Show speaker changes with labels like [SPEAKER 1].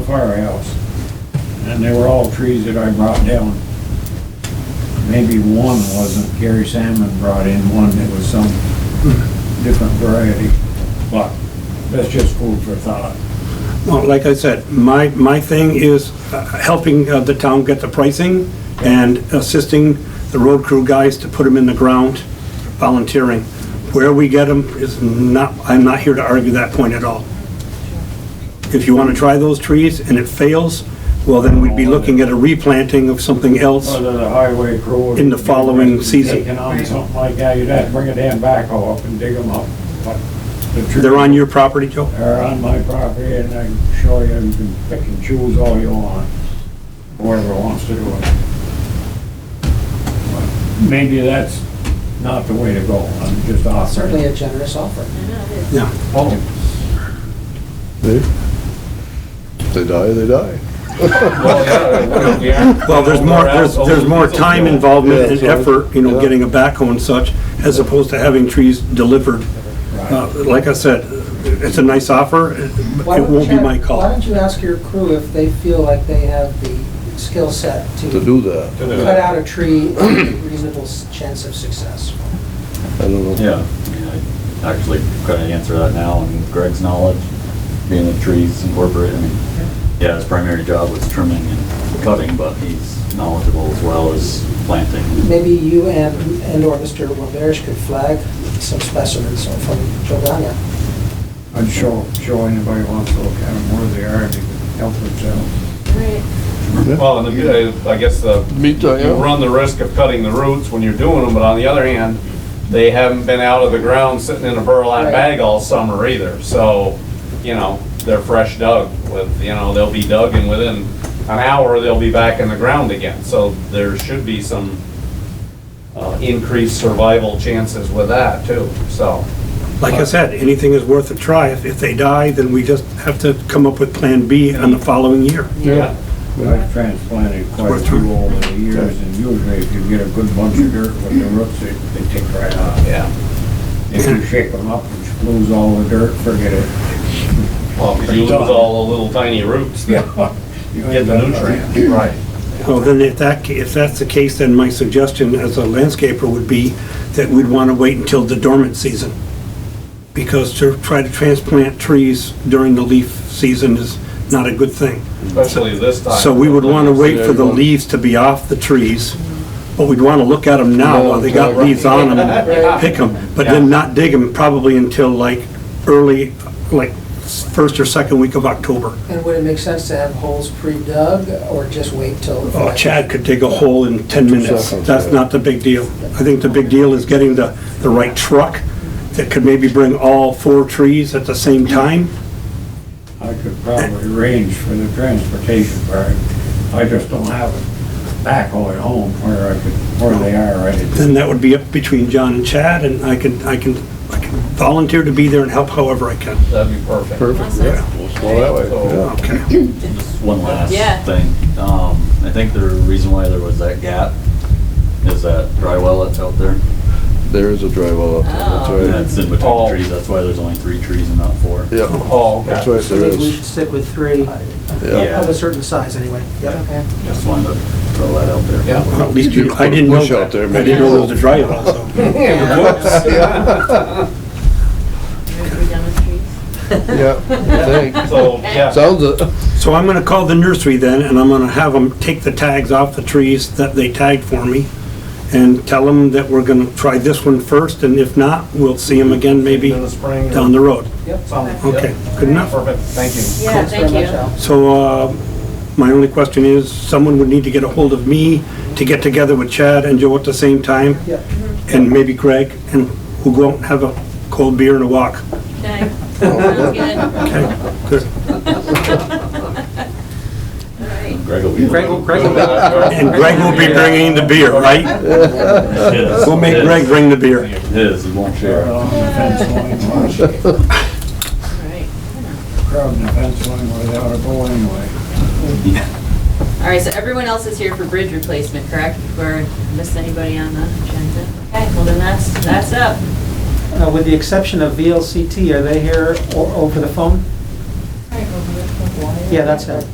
[SPEAKER 1] firehouse. And they were all trees that I brought down. Maybe one wasn't, Gary Salmon brought in one that was some different variety. But that's just food for thought.
[SPEAKER 2] Well, like I said, my, my thing is uh, helping uh, the town get the pricing and assisting the road crew guys to put them in the ground, volunteering. Where we get them is not, I'm not here to argue that point at all. If you want to try those trees and it fails, well, then we'd be looking at a replanting of something else.
[SPEAKER 1] Whether the highway crew.
[SPEAKER 2] In the following
[SPEAKER 1] was
[SPEAKER 2] season.
[SPEAKER 1] Taking on something like that, you'd have to bring a damn backhoe up and dig them up. But the trees-
[SPEAKER 2] They're on your property, Joe?
[SPEAKER 1] They're on my property and I can show you, you can pick and choose all you want, whoever wants to do it. But Maybe that's not the way to go, I'm just
[SPEAKER 3] Certainly
[SPEAKER 1] offering.
[SPEAKER 3] a generous offer.
[SPEAKER 2] Yeah.
[SPEAKER 1] Oh,
[SPEAKER 4] They, they die, they die.
[SPEAKER 2] Well, there's more, there's, there's more time involvement and
[SPEAKER 4] Yeah, so-
[SPEAKER 2] effort, you know,
[SPEAKER 4] yeah.
[SPEAKER 2] getting a backhoe and such, as opposed to having trees delivered. Uh, Like I said, it's a nice offer, it
[SPEAKER 3] Why
[SPEAKER 2] it
[SPEAKER 3] don't-
[SPEAKER 2] won't be my
[SPEAKER 3] Chad, Why
[SPEAKER 2] call.
[SPEAKER 3] don't you ask your crew if they feel like they have the skill set
[SPEAKER 4] To
[SPEAKER 3] to
[SPEAKER 4] do that,
[SPEAKER 3] cut out a tree with a reasonable s- chance of success?
[SPEAKER 4] I don't know.
[SPEAKER 5] Yeah, I mean, I actually couldn't answer that now, I mean, Greg's knowledge, being a trees incorporated, I mean, yeah, his primary job was trimming and cutting, but he's knowledgeable as well as planting.
[SPEAKER 3] Maybe you and, and/or Mr. Roberge could flag some specimens from Jordania.
[SPEAKER 1] I'd show, show anybody who wants to look at them where they are, and they can help themselves.
[SPEAKER 6] Well, and the- I guess the,
[SPEAKER 4] Me too,
[SPEAKER 6] you run the risk of cutting the roots when you're doing them, but on the other hand, they haven't been out of the ground sitting in a burlap
[SPEAKER 3] Right.
[SPEAKER 6] bag all summer either, so, you know, they're fresh dug with, you know, they'll be dug and within an hour, they'll be back in the ground again, so there should be some uh, increased survival chances with that too, so.
[SPEAKER 2] Like I said, anything is worth a try. If, if they die, then we just have to come up with Plan B on the following year.
[SPEAKER 6] Yeah.
[SPEAKER 1] I've transplanted quite a
[SPEAKER 2] worth
[SPEAKER 1] few over the years, and usually if you get a good bunch of dirt with the roots, they, they take right off.
[SPEAKER 6] Yeah.
[SPEAKER 1] If you shake them up and lose all the dirt, forget it.
[SPEAKER 6] Well, 'cause you lose all the little tiny roots that
[SPEAKER 1] You
[SPEAKER 6] get the nutrients. Right.
[SPEAKER 2] Well, then if that, ca- if that's the case, then my suggestion as a landscaper would be that we'd want to wait until the dormant season. Because to try to transplant trees during the leaf season is not a good thing.
[SPEAKER 6] Especially this time.
[SPEAKER 2] So we would want to wait for the leaves to be off the trees, but we'd want to look at them now while they got leaves on them, and pick them, but then not dig them probably until like early, like first or second week of October.
[SPEAKER 3] And would it make sense to have holes pre-dug or just wait till?
[SPEAKER 2] Oh, Chad could dig a hole in 10 minutes.
[SPEAKER 4] seconds,
[SPEAKER 2] That's
[SPEAKER 4] yeah.
[SPEAKER 2] not the big deal. I think the big deal is getting the, the right truck that could maybe bring all four trees at the same time.
[SPEAKER 1] I could probably arrange for the transportation part. I just don't have it back all at home where I could, where they are right at
[SPEAKER 2] Then that would be up between John and Chad, and I can, I can, I can volunteer to be there and help however I can.
[SPEAKER 6] That'd be perfect.
[SPEAKER 4] Perfect, yeah. We'll go that way, yeah.
[SPEAKER 2] Okay.
[SPEAKER 5] Just one last
[SPEAKER 7] Yeah.
[SPEAKER 5] thing, um, I think the reason why there was that gap is that dry well that's out there.
[SPEAKER 4] There is a dry well up there, that's
[SPEAKER 5] That's in between
[SPEAKER 6] Oh.
[SPEAKER 5] the trees, that's why there's only three trees and not four.
[SPEAKER 4] right. Yeah,
[SPEAKER 6] Oh,
[SPEAKER 4] that's
[SPEAKER 6] okay.
[SPEAKER 4] right, there is.
[SPEAKER 3] stick with three,
[SPEAKER 4] Yeah.
[SPEAKER 3] of a certain size anyway. Yep.
[SPEAKER 5] Just wanted to throw that out there.
[SPEAKER 6] Yeah.
[SPEAKER 2] Well, At least
[SPEAKER 4] You
[SPEAKER 2] you,
[SPEAKER 4] put
[SPEAKER 2] I
[SPEAKER 4] a
[SPEAKER 2] didn't know.
[SPEAKER 4] bush out there,
[SPEAKER 2] I
[SPEAKER 4] maybe.
[SPEAKER 2] didn't know it was a dry well, so.
[SPEAKER 7] Are we done with trees?
[SPEAKER 4] Yeah, I think.
[SPEAKER 6] So, yeah,
[SPEAKER 4] Sounds, a-
[SPEAKER 2] So I'm gonna call the nursery then, and I'm gonna have them take the tags off the trees that they tagged for me, and tell them that we're gonna try this one first, and if not, we'll see them again maybe
[SPEAKER 6] in the spring. or
[SPEAKER 2] down the road.
[SPEAKER 6] something.
[SPEAKER 2] Okay,
[SPEAKER 6] Yep.
[SPEAKER 2] good enough.
[SPEAKER 6] Perfect, thank you.
[SPEAKER 7] Yeah, thank you.
[SPEAKER 2] So, uh, my only question is, someone would need to get a hold of me to get together with Chad and Joe at the same time,
[SPEAKER 3] Yep.
[SPEAKER 2] and maybe Greg, and we'll go out and have a cold beer and a walk.
[SPEAKER 7] Okay. Sounds good.
[SPEAKER 2] Okay, good.
[SPEAKER 7] All right.
[SPEAKER 5] Greg will be.
[SPEAKER 2] And Greg will be bringing the beer, right?
[SPEAKER 5] His,
[SPEAKER 2] We'll make
[SPEAKER 5] his-
[SPEAKER 2] Greg bring the beer.
[SPEAKER 5] His, he won't
[SPEAKER 1] there.
[SPEAKER 5] share.
[SPEAKER 1] Along the fence line, watch it.
[SPEAKER 7] All right.
[SPEAKER 1] crowding the fence line where they ought to go anyway.
[SPEAKER 7] All right, so everyone else is here for bridge replacement, correct? Or missed anybody on the agenda? Okay, well then that's, that's up.
[SPEAKER 8] Uh, With the exception of VLCT, are they here o- over the phone? Yeah, that's it.